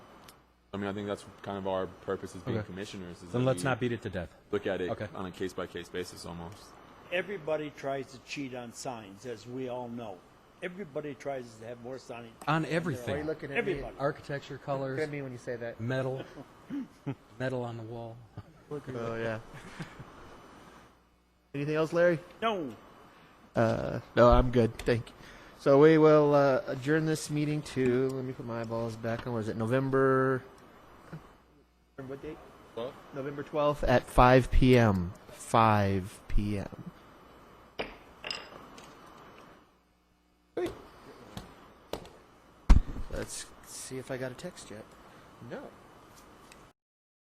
I mean, I think that's kind of our purpose as being Okay. commissioners. Is Then that let's we not beat it to death. look at it Okay. on a case by case basis almost. Everybody tries to cheat on signs, as we all know. Everybody tries to have more signage. On Why are you everything. looking at Everybody. me? Architecture, Look at colors, me when you say that. metal, metal on the wall. Oh yeah. Anything else, Larry? No, Uh, no, I'm good. Thank you. So we will uh, adjourn this meeting to. Let me put my eyeballs back on. What is it? November. What date? Twelfth? November twelfth at five p.m. Five p.m. Great. Let's see if I got a text yet. No.